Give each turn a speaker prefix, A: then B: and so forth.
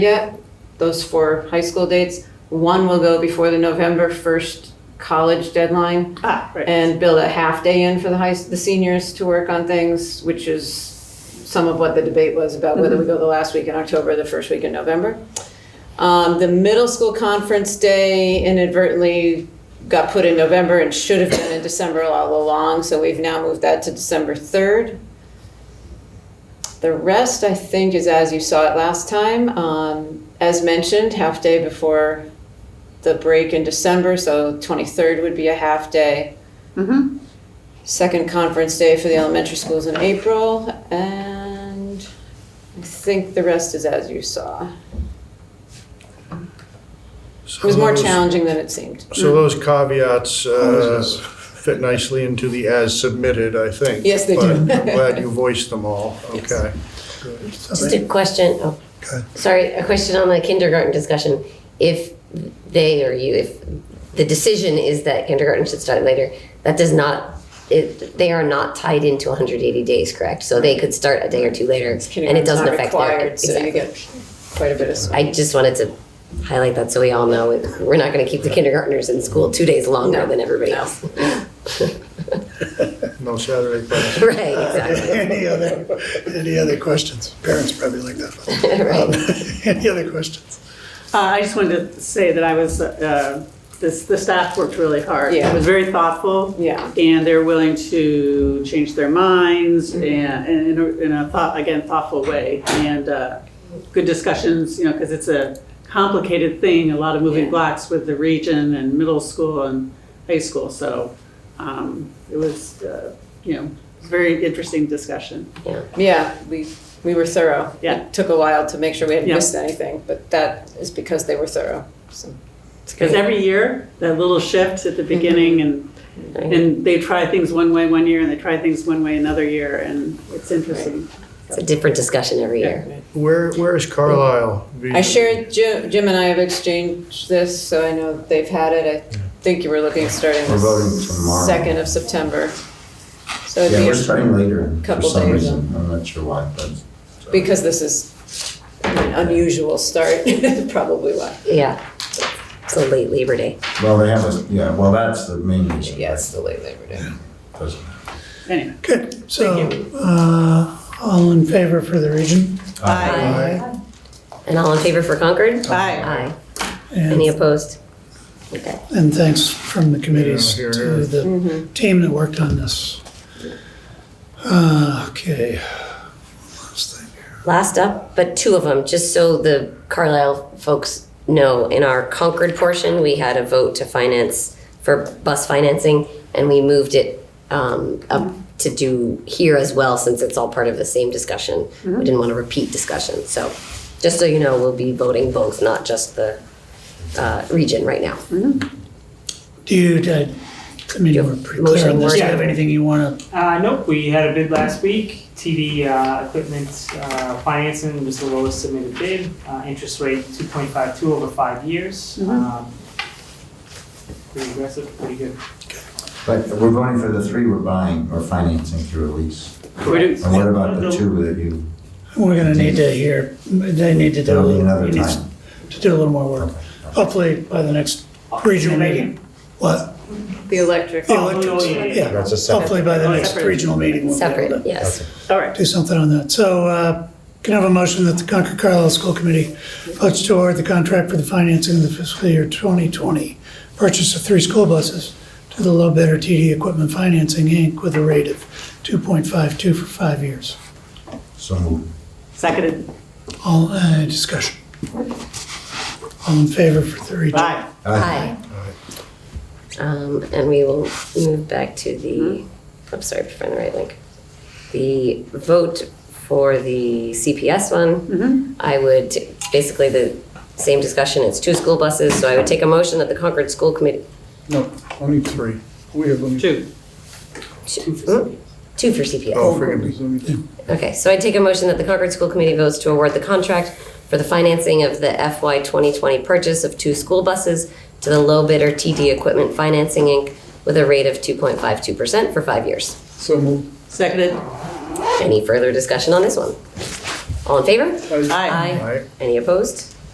A: yet, those four high school dates. One will go before the November 1st college deadline
B: Ah, right.
A: and build a half day in for the high, the seniors to work on things, which is some of what the debate was about whether we go the last week in October or the first week in November. Um, the middle school conference day inadvertently got put in November and should have been in December all along, so we've now moved that to December third. The rest, I think, is as you saw it last time. Um, as mentioned, half day before the break in December, so twenty-third would be a half day.
B: Mm-hmm.
A: Second conference day for the elementary schools in April, and I think the rest is as you saw. It was more Mm. challenging than it seemed.
C: So those caveats uh,
D: Yes.
C: fit nicely into the as submitted, I think.
A: Yes, they do.
C: But I'm glad you voiced them all,
A: Yes.
C: okay.
E: Just a question, oh,
D: Go ahead.
E: sorry, a question on the kindergarten discussion. If they or you, if the decision is that kindergarten should start later, that does not, it, they are not tied into 180 days, correct? So they could start a day or two later and it
A: Kindergarten's
E: doesn't
A: not
E: affect their.
A: required, So you
E: Exactly.
A: get quite a bit of.
E: I just wanted to highlight that so we all know, it- we're not gonna keep the kindergartners in school two days
A: No,
E: longer than everybody
A: no.
E: else.
C: No Saturday class.
E: Right, exactly,
D: Any other, any other questions? Parents probably like that. Um,
E: right.
D: Any other questions?
B: Uh, I just wanted to say that I was, uh, this, the staff worked really hard.
A: Yeah.
B: It was very thoughtful.
A: Yeah.
B: And they're willing to change their minds
A: Mm-hmm.
B: and, and in a, in a thought, again, thoughtful way. And, uh, good discussions, you know, because it's a complicated thing, a lot of moving
A: Yeah.
B: blocks with the region and middle school and high school. So, um, it was, uh, you know, it was a very interesting discussion.
A: Yeah, we, we were thorough.
B: Yeah.
A: It took a while to make sure we hadn't
B: Yeah.
A: missed anything, but that is because they were thorough, so. it's
B: Because
A: great.
B: every year, that little shift at the beginning and And they try things one way one year and they try things one way another year and it's interesting.
E: It's a different discussion every year.
C: Where, where is Carlisle?
A: I shared, Jim, Jim and I have exchanged this, so I know they've had it. I think you were looking at starting
F: We're voting
A: the
F: tomorrow.
A: second of September. So it'd
F: Yeah,
A: be,
F: we're
A: a-
F: starting later for
A: couple
F: some
A: days,
F: reason. I'm not sure why, but.
A: because this is an unusual start, probably why.
E: Yeah, so late Labor Day.
F: Well, they have a, yeah, well, that's the main reason.
A: Yeah, it's the late Labor Day.
F: Doesn't-
B: Anyway,
D: Good. So, uh, all in favor for the region? Aye.
E: And all in favor for Concord? Aye. Any
D: And,
E: opposed? Okay.
D: and thanks from the committees
C: Yeah,
D: to
C: here, here.
D: the
E: Mm-hmm.
D: team that worked on this. Uh, Okay. Last thing here.
E: Last up, but two of them, just so the Carlisle folks know, in our Concord portion, we had a vote to finance for bus financing, and we moved it um, up to do here as well, since it's all part of the same discussion. We didn't want to repeat discussion, so just so you know, we'll be voting both, not just the uh, region right now.
D: Do you, I I mean, you were pretty clear on this. Do you have anything you want to,
G: Uh, nope, we had a bid last week. TV uh, equipment uh, financing was the lowest submitted bid. Uh, interest rate 2.52 over five years. Um, pretty aggressive, pretty good.
F: But we're voting for the three we're buying or financing through a lease.
B: we do-
F: And what about the two that you,
D: we're going to need to hear, they need to do.
F: that'll be another
D: you need
F: time.
D: To do a little more work. Hopefully by the next regional meeting. What?
A: The electric.
D: Oh, elections.
G: yeah, yeah.
D: Yeah, Oh,
F: That's a
D: hopefully by the next
B: Separate.
D: regional meeting. we'll be able to
E: Separate, yes.
B: all right.
D: Do something on that. So uh, can I have a motion that the Concord Carlisle School Committee votes to award the contract for the financing of the fiscal year 2020 purchase of three school buses to the low bidder TD Equipment Financing, Inc. with a rate of 2.52 for five years.
F: So moved.
B: Seconded,
D: All, uh, discussion. All in favor for the region?
B: aye.
E: Aye. Um, and we will move back to the, I'm sorry, if I find the right link. The vote for the CPS one. I would, t- basically the same discussion, it's two school buses, so I would take a motion that the Concord School Committee,
C: No, only three. We have only.
B: Two.
E: two hmm? Two for CPS.
C: Oh, forgive me.
E: Okay, so I take a motion that the Concord School Committee votes to award the contract for the financing of the FY 2020 purchase of two school buses to the low bidder TD Equipment Financing, Inc., with a rate of 2.52% for five years.
C: So moved.
B: Seconded,
E: Any further discussion on this one? All in favor?
B: Aye.
C: Aye.
E: Any opposed?